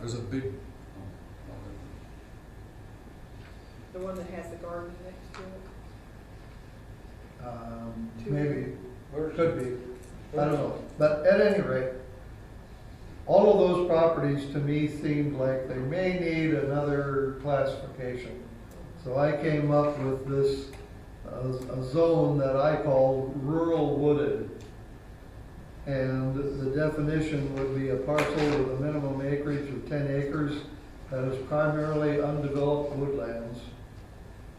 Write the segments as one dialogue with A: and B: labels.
A: There's a big.
B: The one that has the garden next to it?
C: Um,
B: Two.
C: maybe,
D: Where's-
C: could be, I don't know. But at any rate, all of those properties to me seemed like they may need another classification. So I came up with this, uh, a zone that I call rural wooded. And the definition would be a parcel with a minimum acreage of ten acres that is primarily undeveloped woodlands.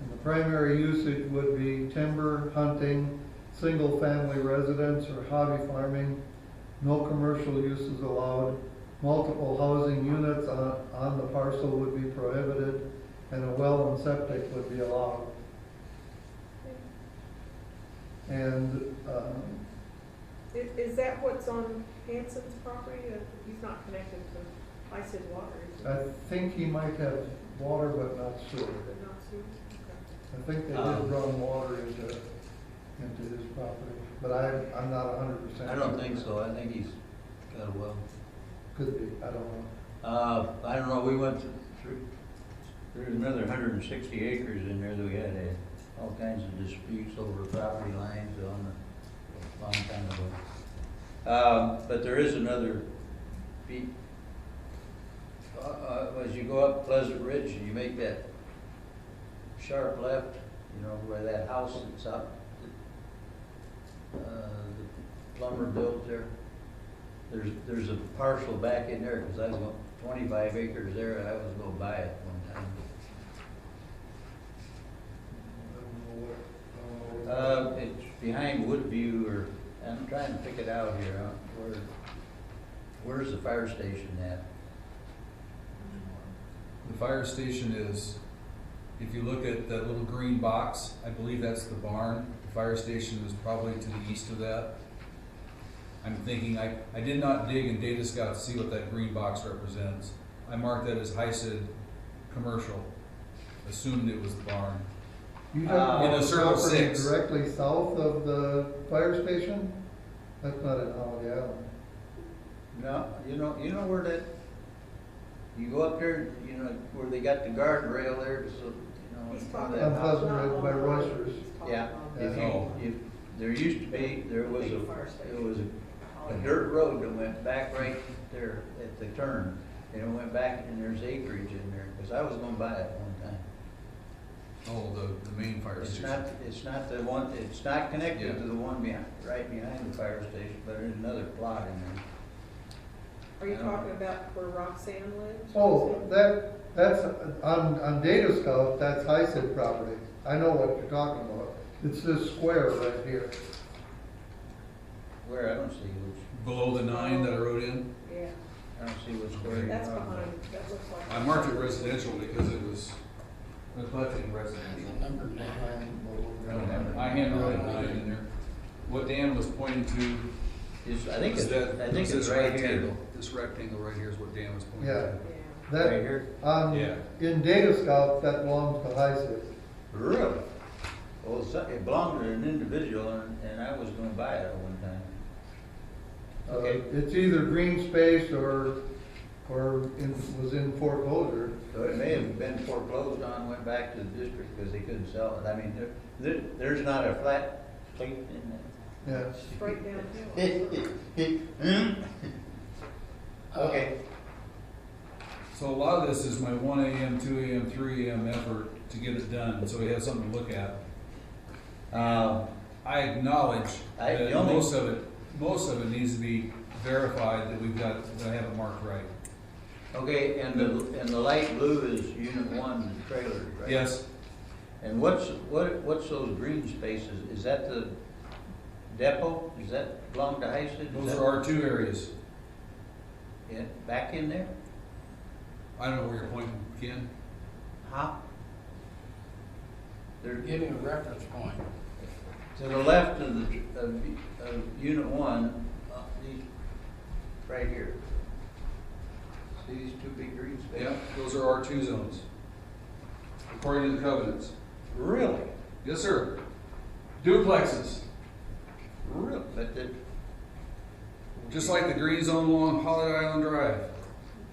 C: And the primary usage would be timber, hunting, single-family residence or hobby farming. No commercial uses allowed. Multiple housing units on, on the parcel would be prohibited, and a well and septic would be allowed. And, um,
B: I- Is that what's on Hanson's property? Uh, He's not connected to Isid Water, is he?
C: I think he might have water, but not sewer.
B: But not sewer? Okay.
C: I think they did
D: Um,
C: run water into, into his property, but I, I'm not hundred percent.
D: I don't think so, I think he's got a well.
C: Could be, I don't know.
D: Uh, I don't know, we went through- through, there's another hundred and sixty acres in there that we had, uh, all kinds of disputes over property lines on a long time ago. Uh, but there is another, be, uh, uh, as you go up Pleasant Ridge and you make that sharp left, you know, where that house that's up, uh, the plumber built there. There's, there's a parcel back in there, because I was going- twenty-five acres there, and I was gonna buy it one time.
C: I don't know what, I don't know what-
D: Uh, it's behind Woodview, or, I'm trying to pick it out here, huh? where, where's the fire station at?
A: The fire station is, if you look at that little green box, I believe that's the barn. The fire station is probably to the east of that. I'm thinking, I, I did not dig in Data Scout to see what that green box represents. I marked that as HICID commercial, assumed it was the barn.
C: You
D: Uh,
C: don't
D: in
A: a
C: own
A: circle
C: property
A: six.
C: directly south of the fire station? That's not in Holiday Island.
D: No, you know, you know where that, you go up there, you know, where they got the guardrail there, so, you know.
B: He's
D: where
B: talking
D: that
C: I'm
B: about.
D: house-
C: Pleasant
B: not
C: Ridge
B: on
C: by
B: the road,
C: Royster's.
B: he's talking
D: Yeah,
B: about
D: if
B: the-
D: you, if, there used to be, there was
B: Big
D: a,
B: fire
D: there
B: station. Oh,
D: was a a dirt road that went back right there at the turn, and it went back, and there's acreage in there, because I was gonna buy it one time.
A: Oh, the, the main fire
D: It's
A: station.
D: not, it's not the one, it's not connected to the one behind, right behind the fire station, but there's another plot in there.
B: Are you
D: I don't-
B: talking about where Roxanne lives?
C: Oh,
B: Roxanne?
C: that, that's, on, on Data Scout, that's HICID property. I know what you're talking about. It's this square right here.
D: Where, I don't see which,
A: Below the nine that I wrote in,
B: Yeah,
D: I don't see which square. you're
B: that's
D: talking about.
B: behind, that looks like.
A: I marked it residential because it was neglecting residential.
E: Number nine.
A: I don't have it. I handwrote nine in there. What Dan was pointing to
D: It's, I think
A: Is
D: it's,
A: that,
D: I think
A: is
D: it's
A: this
D: right here.
A: rectangle, this rectangle right here is what Dan was pointing
C: Yeah.
A: to.
B: Yeah.
D: Right
C: That,
D: here.
C: on,
A: Yeah.
C: in Data Scout, that belongs to HICID.
D: Really? Well, so- it belonged to an individual, and, and I was gonna buy it at one time.
C: Uh,
D: Okay.
C: It's either green space or, or in, was in foreclosure.
D: So it may have been foreclosed on, went back to the district because they couldn't sell it. I mean, there, there, there's not a flat plate in
C: Yeah.
B: Straight downhill.
D: there. Okay,
A: So a lot of this is my one AM, two AM, three AM effort to get it done, so we have something to look at. Um,
D: uh,
A: I acknowledge
D: I-
A: that
D: the only-
A: most of it, most of it needs to be verified that we've got, that I have it marked right.
D: okay, and the, and the light blue is unit one, the trailer, right?
A: Yes,
D: And what's, what, what's those green spaces? Is that the depot? Is that belong to Heisted?
A: those are our two areas.
D: Yeah, back in there?
A: I don't know where you're pointing, Ken.
D: Huh? There,
E: Give me a reference point.
D: To the left of the, of, of unit one, uh, these, right here. See these two big green
A: Yeah,
D: spaces?
A: those are our two zones. According to the covenants.
D: Really?
A: Yes, sir. Duplexes.
D: Really? But the.
A: Just like the green zone along Holiday Island Drive.